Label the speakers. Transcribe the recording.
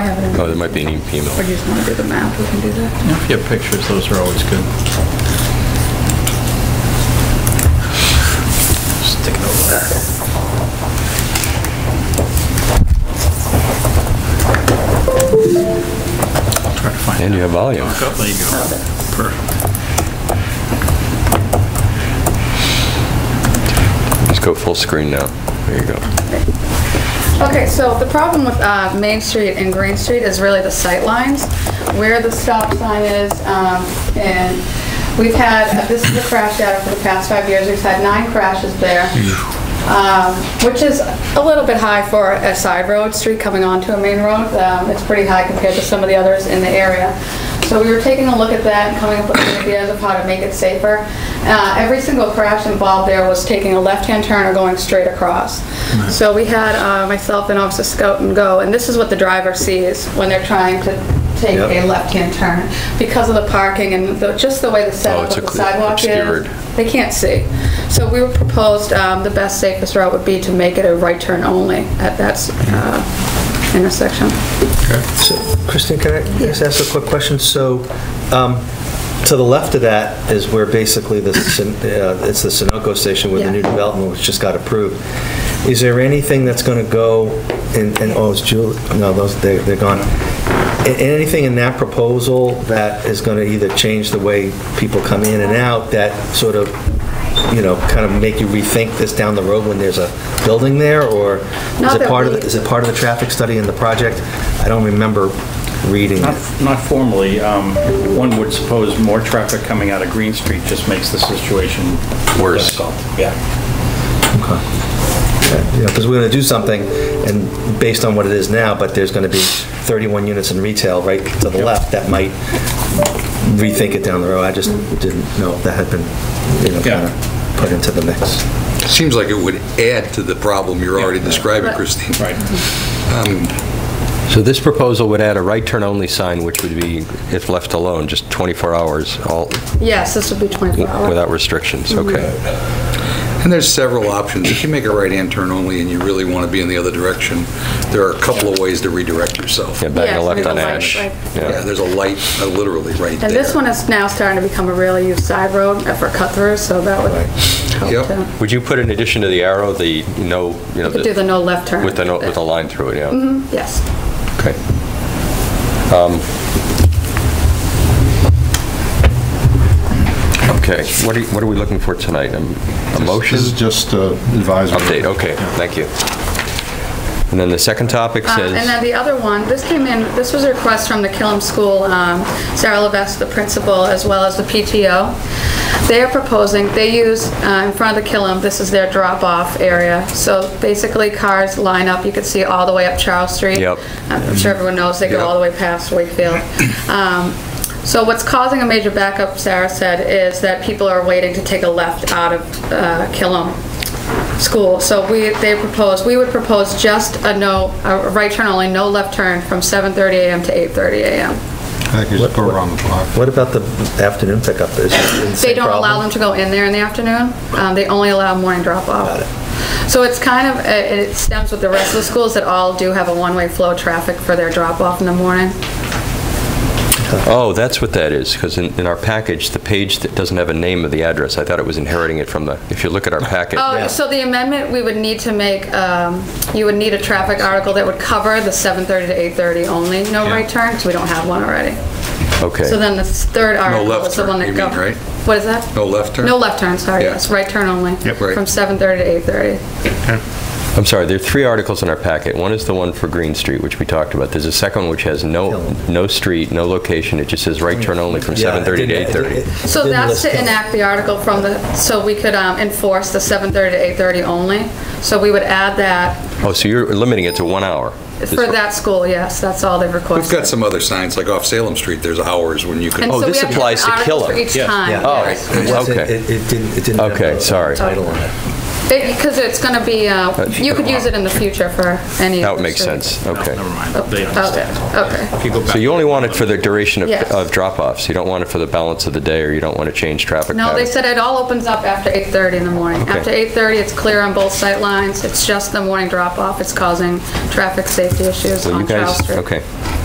Speaker 1: Oh, there might be an email.
Speaker 2: Or do you just want to do the map? We can do that.
Speaker 3: If you have pictures, those are always good. Stick it over there. Try to find
Speaker 1: And you have volume.
Speaker 3: it. Oh, There you go. Perfect.
Speaker 1: Just go full screen now. There you go.
Speaker 2: Okay, so the problem with uh, Main Street and Green Street is really the sight lines, where the stop sign is, um, and we've had, this is the crash data for the past five years, we've had nine crashes there, um, which is a little bit high for a side road, street coming onto a main road. Um, It's pretty high compared to some of the others in the area. So we were taking a look at that and coming up with ideas of how to make it safer. Uh, Every single crash involved there was taking a left-hand turn or going straight across. So we had uh, myself and Officer Scout and go, and this is what the driver sees when they're trying to take
Speaker 3: Yep.
Speaker 2: a left-hand turn. Because of the parking and the- just the way the
Speaker 1: Oh,
Speaker 2: setup
Speaker 1: it's
Speaker 2: of the
Speaker 1: occlu-
Speaker 2: sidewalk
Speaker 1: obscured.
Speaker 2: is, they can't see. So we were proposed, um, the best safest route would be to make it a right turn only at that s- uh, intersection.
Speaker 4: So, Christine, can I just ask a quick question? So, um, to the left of that is where basically the, Sun- uh, it's the Sunoco station with the new
Speaker 2: Yeah.
Speaker 4: development which just got approved. Is there anything that's going to go in, in- oh, it's Julie, no, those, they- they're gone. A- Anything in that proposal that is going to either change the way people come in and out, that sort of, you know, kind of make you rethink this down the road when there's a building there, or is
Speaker 2: Not
Speaker 4: it
Speaker 2: that
Speaker 4: part of,
Speaker 2: we-
Speaker 4: the- is it part of the traffic study in the project? I don't remember reading
Speaker 3: Not
Speaker 4: it.
Speaker 3: not formally, um, one would suppose more traffic coming out of Green Street just makes the situation
Speaker 1: Worse.
Speaker 3: difficult. Yeah.
Speaker 4: Because we're going to do something, and based on what it is now, but there's going to be 31 units in retail right to the left that might rethink it down the road. I just didn't know if that had been, you know,
Speaker 3: Yeah.
Speaker 4: kind of put into the mix.
Speaker 5: Seems like it would add to the problem you're already describing, Christine.
Speaker 3: Right.
Speaker 1: So this proposal would add a right turn only sign, which would be, if left alone, just 24 hours, all,
Speaker 2: Yes, this would be 24 hours.
Speaker 1: without restrictions,
Speaker 2: Mm-hmm.
Speaker 1: okay?
Speaker 5: And there's several options. If you make a right-hand turn only and you really want to be in the other direction, there are a couple of ways to redirect yourself.
Speaker 1: Yeah, back
Speaker 2: Yeah,
Speaker 1: and left
Speaker 2: so
Speaker 1: on
Speaker 2: it's like-
Speaker 1: Ash.
Speaker 2: like-
Speaker 5: Yeah,
Speaker 1: Yeah.
Speaker 5: there's a light uh, literally right there.
Speaker 2: And this one is now starting to become a really used side road for cut-through, so that would help
Speaker 5: Yep.
Speaker 2: too.
Speaker 1: Would you put in addition to the arrow, the no, you know,
Speaker 2: You could do the
Speaker 1: the-
Speaker 2: no left turn. Mm-hmm,
Speaker 1: with the, no- with the line through it, yeah?
Speaker 2: Yes.
Speaker 1: Okay. Um, Okay, what are, you- what are we looking for tonight? Um, A motion?
Speaker 6: This is just uh, advisory.
Speaker 1: Update, okay, thank you. And then the second topic
Speaker 2: Uh,
Speaker 1: says...
Speaker 2: And then the other one, this came in, this was a request from the Killam School, um, Sarah Levesque, the principal, as well as the PTO. They are proposing, they use, uh, in front of the Killam, this is their drop-off area. So basically, cars line up, you can see all the way up Charles Street.
Speaker 1: Yep.
Speaker 2: I'm sure everyone knows, they go all the way past Wakefield. Um, So what's causing a major backup, Sarah said, is that people are waiting to take a left out of uh, Killam school. So we, they propose, we would propose just a no, a right turn only, no left turn from 7:30 AM to 8:30 AM.
Speaker 6: I could just put it on the block.
Speaker 4: What about the afternoon pickup? Is it the
Speaker 2: They
Speaker 4: same
Speaker 2: don't allow them to
Speaker 4: problem?
Speaker 2: go in there in the afternoon. Um, They only allow morning drop-off. So it's kind of, it it stems with the rest of the schools that all do have a one-way flow traffic for their drop-off in the morning.
Speaker 1: Oh, that's what that is, because in, in our package, the page that doesn't have a name of the address, I thought it was inheriting it from the, if you look at our packet.
Speaker 2: Oh, so the amendment, we would need to make, um, you would need a traffic article that would cover the 7:30 to 8:30 only, no right turn, because we don't have one already.
Speaker 1: Okay.
Speaker 2: So then the third article
Speaker 5: left
Speaker 2: is the one that
Speaker 5: turn,
Speaker 2: governs.
Speaker 5: you mean, right?
Speaker 2: What is that?
Speaker 5: No left turn?
Speaker 2: No left turn, sorry,
Speaker 5: Yeah.
Speaker 2: yes, right turn only.
Speaker 5: Yep. Right.
Speaker 2: From 7:30 to 8:30.
Speaker 1: I'm sorry, there are three articles in our packet. One is the one for Green Street, which we talked about. There's a second which has no, no street, no location, it just says right turn only from
Speaker 4: Yeah,
Speaker 1: 7:30
Speaker 4: it
Speaker 1: to
Speaker 4: didn't- it-
Speaker 1: 8:30.
Speaker 4: it- it
Speaker 2: So
Speaker 4: didn't
Speaker 2: that's
Speaker 4: list
Speaker 2: to
Speaker 4: it.
Speaker 2: enact the article from the, so we could um, enforce the 7:30 to 8:30 only. So we would add that
Speaker 1: Oh, so you're limiting it to one hour?
Speaker 2: for that school, yes, that's all they've requested.
Speaker 5: We've got some other signs, like off Salem Street, there's hours when you can.
Speaker 2: And
Speaker 1: Oh,
Speaker 2: so we
Speaker 1: this
Speaker 2: have different
Speaker 1: applies to
Speaker 2: articles
Speaker 1: Killam.
Speaker 2: For each
Speaker 3: Yes.
Speaker 2: time.
Speaker 1: Oh,
Speaker 2: yes.
Speaker 4: It wasn't-
Speaker 1: Okay.
Speaker 4: It it didn't, it didn't have
Speaker 1: Okay,
Speaker 4: a-
Speaker 1: sorry.
Speaker 4: a title on it.
Speaker 2: Because it's going to be, uh, you could use it in the future for any.
Speaker 1: That
Speaker 2: of
Speaker 1: would
Speaker 2: the
Speaker 1: make
Speaker 2: students.
Speaker 1: sense,
Speaker 3: No,
Speaker 1: okay.
Speaker 3: Never mind.
Speaker 2: Oh,
Speaker 3: They understand.
Speaker 2: Okay, okay.
Speaker 3: If go
Speaker 1: So
Speaker 3: back-
Speaker 1: you only want it for the duration of
Speaker 2: Yes.
Speaker 1: of drop-offs? You don't want it for the balance of the day, or you don't want to change traffic patterns?
Speaker 2: No, they said it all opens up after 8:30 in the morning.
Speaker 1: Okay.
Speaker 2: After 8:30, it's clear on both sight lines. It's just the morning drop-off. It's causing traffic safety issues
Speaker 1: So you
Speaker 2: on Charles
Speaker 1: guys,
Speaker 2: Street.
Speaker 1: okay.